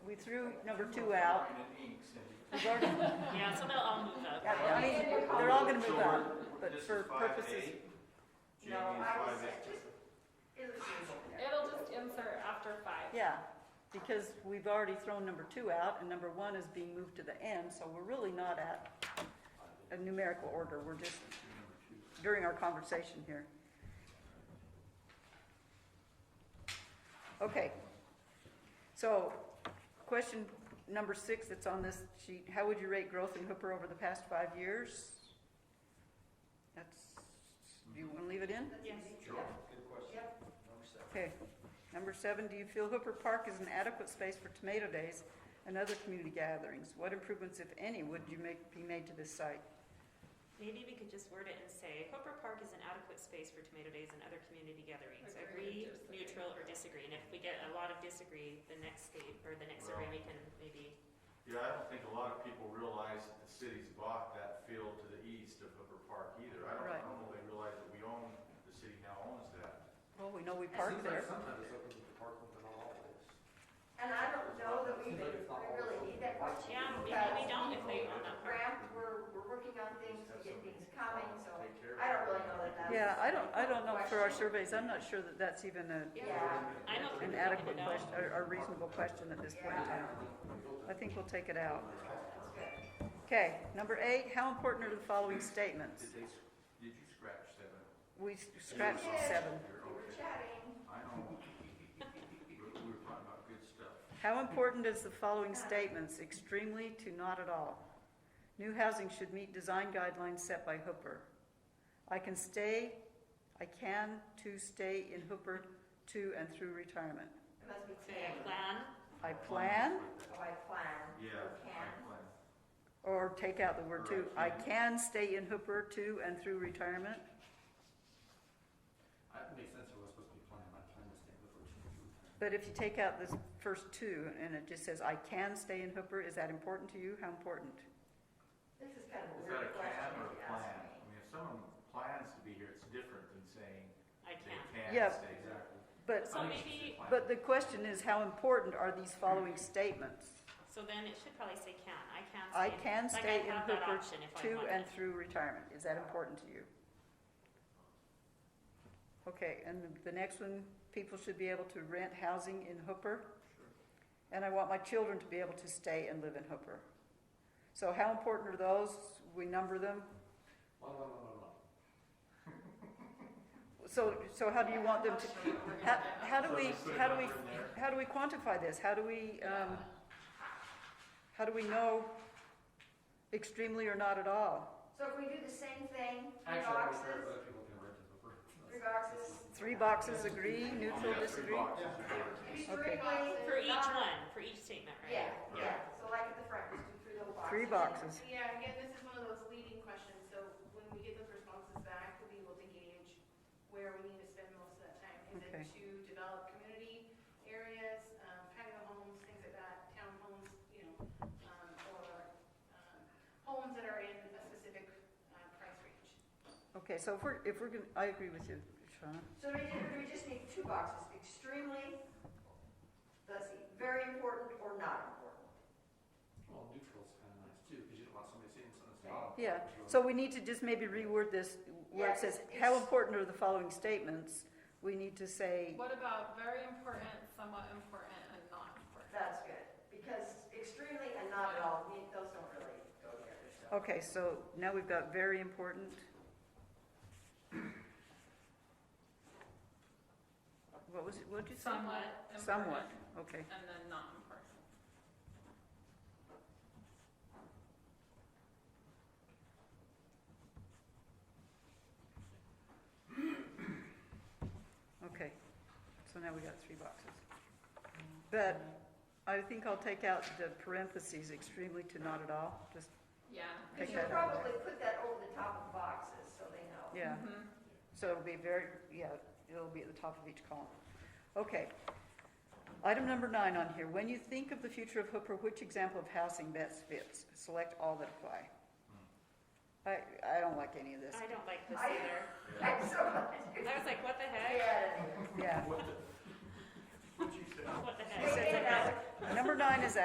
threw number two out. We've already- Yeah, so they'll all move up. yeah, I mean, they're all gonna move up, but for purposes, No, I was, just, it was It'll just insert after five. yeah, because we've already thrown number two out and number one is being moved to the end, so we're really not at a numerical order, we're just during our conversation here. Okay. So, question number six that's on this sheet, how would you rate growth in Hooper over the past five years? That's, do you wanna leave it in? Yes. Okay. Number seven, do you feel Hooper Park is an adequate space for tomato days and other community gatherings? What improvements, if any, would you make, be made to this site? Maybe we could just word it and say, Hooper Park is an adequate space for tomato days and other community gatherings. Agree, Agree, disagree. neutral, or disagree. And if we get a lot of disagree, the next state, or the next survey, we can maybe, Yeah, I don't think a lot of people realize that the city's bought that field to the east of Hooper Park either. I don't, I Right. don't know if they realize that we own, the city now owns that. Well, we know we park there. Sometimes it's open to the park, but not always. and I don't know that we, we really need that much. yeah, maybe because we don't if they own that park. Graham, we're, we're working on things, we get things coming, so Take care of I don't it. really know that that's. Yeah, I don't, I don't know for our surveys, I'm not sure that that's even a, Yeah. I'm an okay with adequate it out. question, or or reasonable question at this point in time. I think we'll take it out. Okay, number eight, how important are the following statements? Did they, s- did you scratch seven? We scratched seven. You're We were okay. chatting, I know. We we were talking about good stuff. How important is the following statements, extremely to not at all? New housing should meet design guidelines set by Hooper. I can stay, I can to stay in Hooper to and through retirement. it must be Say a tan, plan, I plan, oh, I plan, Yeah, I You can. plan. or take out the word to, I can stay in Hooper to and through retirement. I, it makes sense if we're supposed to be planning, I plan to stay before two weeks. But if you take out this first two and it just says, I can stay in Hooper, is that important to you? How important? this is kind of a Is that a weird plan question or a you plan? asked I mean, if someone plans to be here, it's different than saying I can. they can Yeah. stay. But, So maybe, but the question is, how important are these following statements? so then it should probably say can. I can stay. I can like stay in have that Hooper option if I to want and it. through retirement. Is that important to you? Okay, and the- the next one, people should be able to rent housing in Hooper. And I want my children to be able to stay and live in Hooper. So how important are those? We number them. Well, no, no, no, no. So, so how do you want them to, how, how do So we, just put a how do we, number in there. how do we quantify this? How do we, um, how do we know extremely or not at all? So if we do the same thing, three Actually, I don't care if boxes, other people can rent it before. three boxes, Three boxes agree, neutral Yeah, three disagree? boxes. Okay. three boxes. For each not- one, for each statement, right? Yeah, yeah, so like at the front, just do three little boxes. Three boxes. Yeah, again, this is one of those leading questions, so when we get those responses back, we'll be able to gauge where we need to spend most of that time. Is Okay. it to develop community areas, um, patio homes, things like that, townhomes, you know, um, or, um, homes that are in a specific, uh, price range. Okay, so if we're, if we're gonna, I agree with you, Shauna. So we just, we just need two boxes, extremely, let's see, very important or not important. Well, neutral's kind of nice too, because you don't want somebody saying something that's not. Yeah, so we need to just maybe reword this where it says, how important are the following statements? We need to say, What about very important, somewhat important, and not important? That's good, because extremely and not at all, we- those don't really go together, so. okay, so now we've got very important. What was it, what'd you say? Somewhat Somewhat, important, okay. and then not important. Okay, so now we got three boxes. But I think I'll take out the parentheses extremely to not at all, just, Yeah. You Take should that out. probably put that over the top of boxes, so they know. yeah. Mhm. So it'll be very, yeah, it'll be at the top of each column. Okay. Item number nine on here, when you think of the future of Hooper, which example of housing best fits? Select all that apply. I, I don't like any of this, I don't like this I- either. I'm so glad you I was like, what the heck? did. yeah. What the? What'd you say? What the heck? He said Wait, that. Number nine is